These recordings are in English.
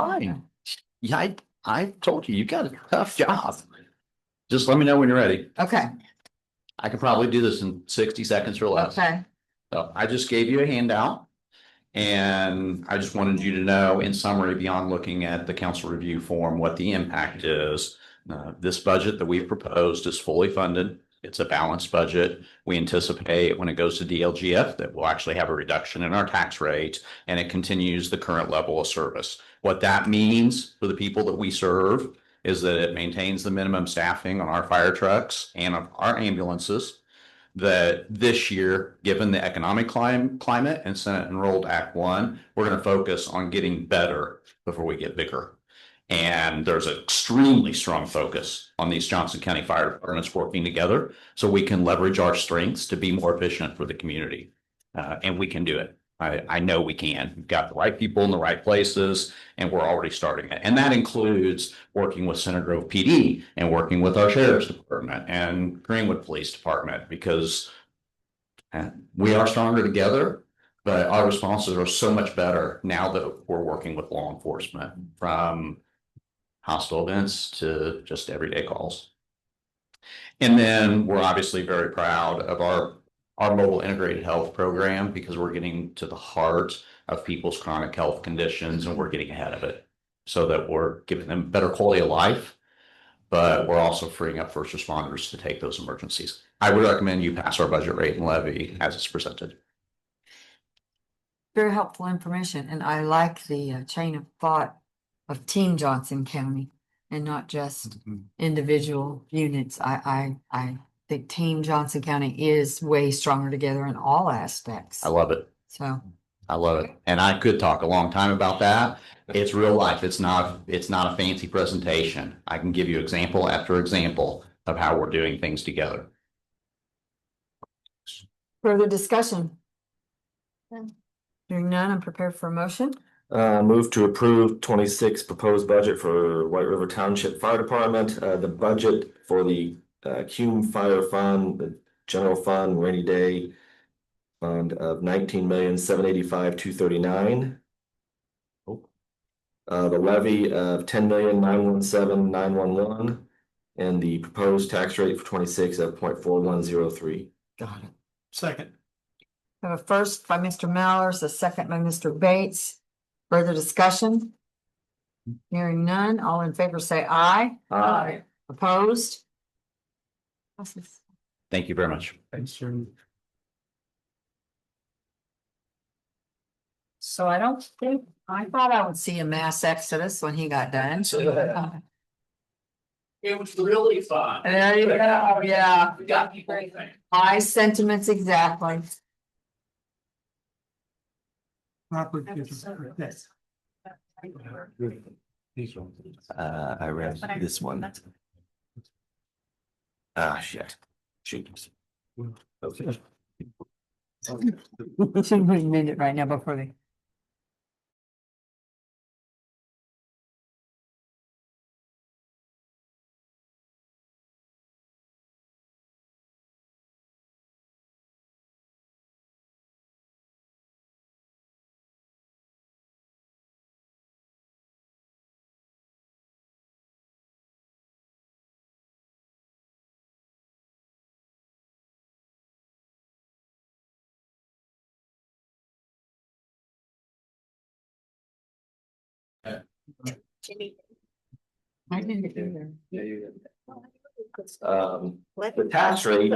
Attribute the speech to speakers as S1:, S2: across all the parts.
S1: Fine. Yeah, I, I told you, you got a tough job. Just let me know when you're ready.
S2: Okay,
S1: I could probably do this in sixty seconds or less.
S2: okay,
S1: So I just gave you a handout. And I just wanted you to know in summary, beyond looking at the council review form, what the impact is. Uh, this budget that we've proposed is fully funded. It's a balanced budget. We anticipate when it goes to DLGF that we'll actually have a reduction in our tax rate and it continues the current level of service. What that means for the people that we serve is that it maintains the minimum staffing on our fire trucks and on our ambulances that this year, given the economic clim- climate and Senate enrolled Act One, we're going to focus on getting better before we get bigger. And there's an extremely strong focus on these Johnson County Fire Departments working together so we can leverage our strengths to be more efficient for the community. Uh, and we can do it. I, I know we can. We've got the right people in the right places and we're already starting it. And that includes working with Center Grove PD and working with our sheriff's department and Greenwood Police Department because uh, we are stronger together, but our responses are so much better now that we're working with law enforcement from hostile events to just everyday calls. And then we're obviously very proud of our, our mobile integrated health program because we're getting to the heart of people's chronic health conditions and we're getting ahead of it so that we're giving them better quality of life. But we're also freeing up first responders to take those emergencies. I would recommend you pass our budget rate and levy as it's presented.
S2: very helpful information, and I like the uh, chain of thought of Team Johnson County and not just individual units. I, I, I think Team Johnson County is way stronger together in all aspects,
S1: I love it.
S2: so.
S1: I love it. And I could talk a long time about that. It's real life. It's not, it's not a fancy presentation. I can give you example after example of how we're doing things together.
S2: Further discussion? Hearing none, I'm prepared for a motion.
S3: Uh, move to approve twenty-six proposed budget for White River Township Fire Department, uh, the budget for the uh, Cume Fire Fund, the General Fund, Rainy Day. Fund of nineteen million, seven eighty-five, two thirty-nine. Uh, the levy of ten million, nine one seven, nine one one. And the proposed tax rate for twenty-six of point four one zero three.
S2: Got it.
S4: Second.
S2: I Have a first by Mr. Mallers, a second by Mr. Bates. Further discussion? Hearing none, all in favor say aye.
S3: Aye.
S2: Opposed? Passes.
S1: Thank you very much.
S4: Thanks, Jeremy.
S2: So I don't think, I thought I would see a mass exodus when he got done. Uh,
S5: It was really fun.
S2: There you go, yeah.
S5: We got people. thinking.
S2: My sentiments exactly.
S4: Robert.
S3: Uh, I read this one. Ah, shit. Shoot.
S2: Should we amend it right now before they? I didn't either.
S3: Um, the tax rate.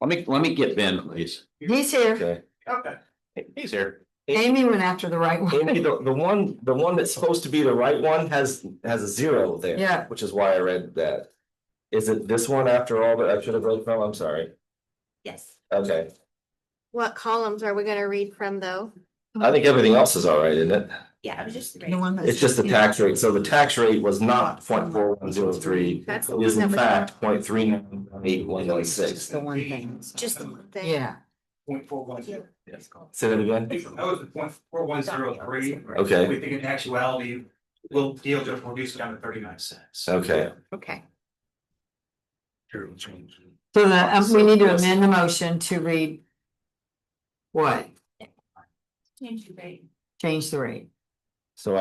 S1: Let me, let me get Ben, please.
S2: He's here.
S3: Okay.
S5: Okay.
S1: He's here.
S2: Amy went after the right one.
S3: Amy, the, the one, the one that's supposed to be the right one has, has a zero there.
S2: Yeah.
S3: Which is why I read that. Is it this one after all that I should have read from? I'm sorry.
S6: Yes.
S3: Okay,
S6: What columns are we gonna read from though?
S3: I think everything else is all right, isn't it?
S6: Yeah, it was just three.
S2: The one that's-
S3: It's just the tax rate. So the tax rate was not point four one zero three.
S6: That's the
S3: It is in
S6: one that was-
S3: fact point three nine eight one one
S2: Just
S3: six.
S2: the one thing.
S6: Just the one thing.
S2: Yeah,
S5: Point four one zero.
S3: Say that
S5: I think
S3: again?
S5: that was the point four one zero three.
S3: Okay.
S5: We think in actuality, we'll deal just reduce it down to thirty nine cents.
S3: Okay.
S6: Okay.
S2: so the, um, we need to amend the motion to read. What?
S6: Change the rate.
S2: Change the rate.